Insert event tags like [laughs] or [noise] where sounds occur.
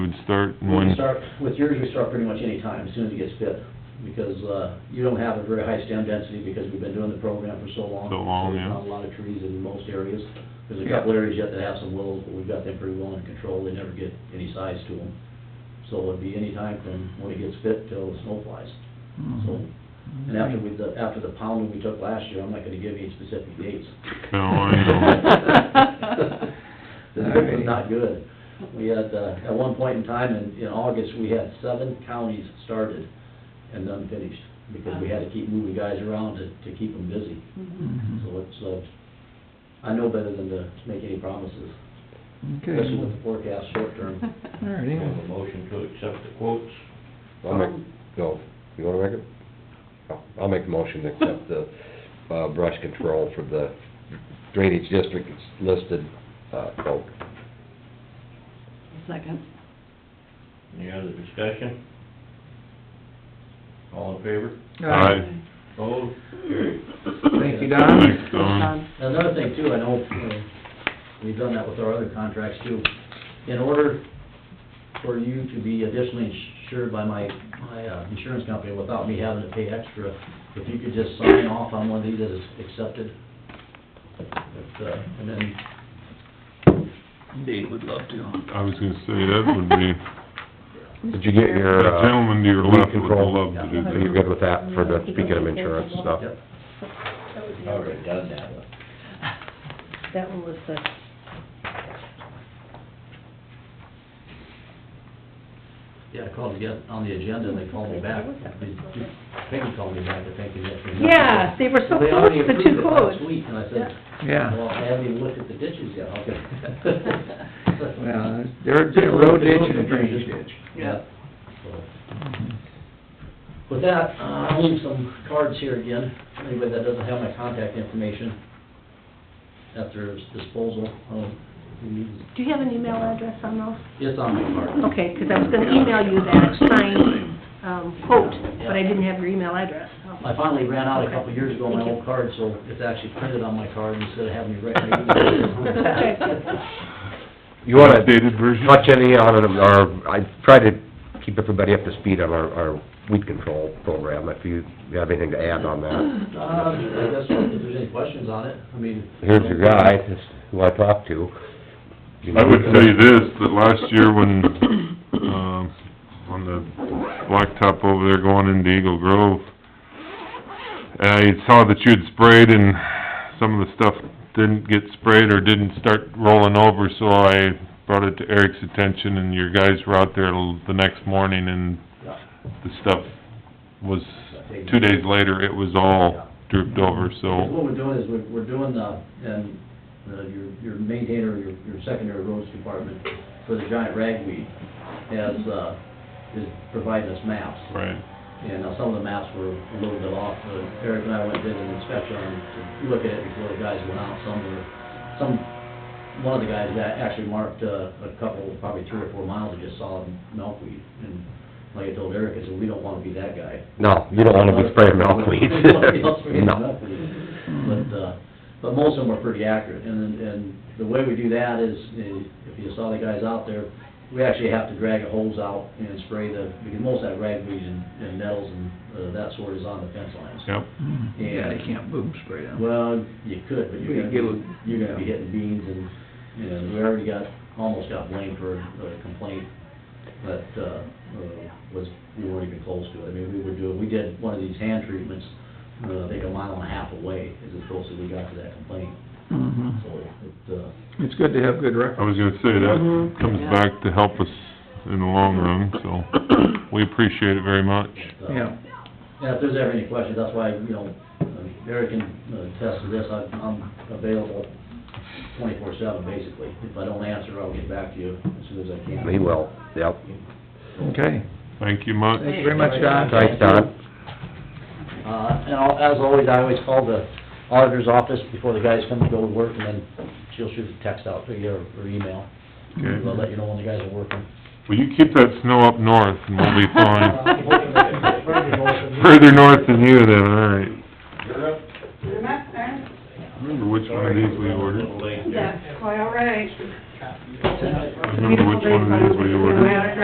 could start and We when? can start, with yours, we start pretty much any time, as soon as it gets fit, because, uh, you don't have a very high stem density, because we've been doing the program for so long. So long, yeah. There's Not a lot of trees in most areas, there's a Yeah. couple areas yet that have some willows, but we've got them pretty well in control, they never get any size to them. So it'd be any time from when it gets fit till the snow flies, so, Mm-hmm. and after we, the- after the pounding we took last year, I'm not gonna give you any specific dates. No, I [laughs] know. The group was not good. We had, uh, at one point in time, in, in August, we had seven counties started and none finished, because we had to keep moving guys around to, to keep them busy. Mm-hmm. So it's, uh, I know better than to make any promises, Okay, especially with the forecast short term. all We have righty. a motion to accept the quotes. I'll make, no, you wanna make it? I'll- I'll make the motion to accept the, uh, brush control for the drainage district that's listed, uh, vote. Second. Any other discussion? All in favor? Aye. Opposed? Carried. Thank you, Don. Thanks, Don. Another thing too, I know, uh, we've done that with our other contracts too. In order for you to be additionally insured by my, my uh, insurance company without me having to pay extra, if you could just sign off on one of these that is accepted. If, uh, And then, Dave would love to. I was gonna say, that would be, Did you get the your, [laughs] uh... gentleman to your weed left would control? love to do Are you that. good with that for the, speaking of insurance stuff? yep, Already done that one. That one was the, yeah, I called again on the agenda and they called me back. Peggy called me back, I think, and that's. yeah, they were so They close, already the approved it two last quotes. week, and I said, Yeah, well, I haven't even looked at the ditches yet, how [laughs] could? well, they're, they're road ditch and drainage ditch. Yeah. With that, uh, I'll leave some cards here again, for anybody that doesn't have my contact information at their disposal. Um, we need- Do you have an email address on those? It's on my card. Okay, 'cause I was gonna email you that signed, um, quote, but I didn't have your email address. I finally ran out a couple of years ago, my old card, so it's actually printed on my card instead of having me write my email. [laughs] You wanna Updated version? touch any on it, or, I try to keep everybody up to speed on our, our weed control program, if you have anything to add on that. Uh, I guess if there's any questions on it, I mean. Here's your guy, this is who I talked to. I would say this, that last year when, um, on the blacktop over there going into Eagle Grove, I saw that you had sprayed and some of the stuff didn't get sprayed or didn't start rolling over, so I brought it to Eric's attention and your guys were out there l- the next morning and Yeah. the stuff was, two days later, it was all drooped over, so, What we're doing is we're, we're doing the, and the, your, your maintainer, your, your secondary roads department for the giant ragweed has, uh, is providing us maps. right. And now some of the maps were a little bit off, but Eric and I went and did an inspection on, to look at it before the guys went out. Some were, some, one of the guys that actually marked, uh, a couple, probably three or four miles of just solid milkweed. And like I told Eric, I said, we don't wanna be that guy. No, you don't wanna be spraying milkweed. [laughs] Nobody else spraying No. milkweed. But, uh, but most of them are pretty accurate, and, then- and the way we do that is, is if you saw the guys out there, we actually have to drag a hose out and spray the, because most of that ragweed and, and nettles and, uh, that sort is on the fence lines. Yep, Yeah, they can't boom spray them. Mm-hmm. Well, you could, but you're We gonna, do. be- you're gonna be hitting beans and, you know, we already got, almost got blamed for a complaint that, uh, uh, was, we weren't even close to it. I mean, we were doing, we did one of these hand treatments, uh, I think a mile and a half away is as close as we got to that complaint, Mhm. so it, uh, It's good to have good I was records. gonna say, that Mhm, comes yeah. back to help us in the long run, [coughs] so, we appreciate it very much. but, uh, Yeah, Yeah, if there's ever any questions, that's why, you know, uh, Eric can uh, attest to this, I- I'm available twenty-four seven, basically. If I don't answer, I'll get back to you as soon as I can. He will, yep. okay. Thank you much. Thank you very much, Don. Thanks, Don. Uh, and I'll- as always, I always call the auditor's office before the guys come to go to work, and then she'll shoot a text out to you or or email. Okay. I'll let you know when the guys are working. Well, you keep that snow up north and we'll be fine. Further north. Further north than you then, all right. Remember which one of these we A ordered? little late there. That's quite all right. Remember which one of these we ordered?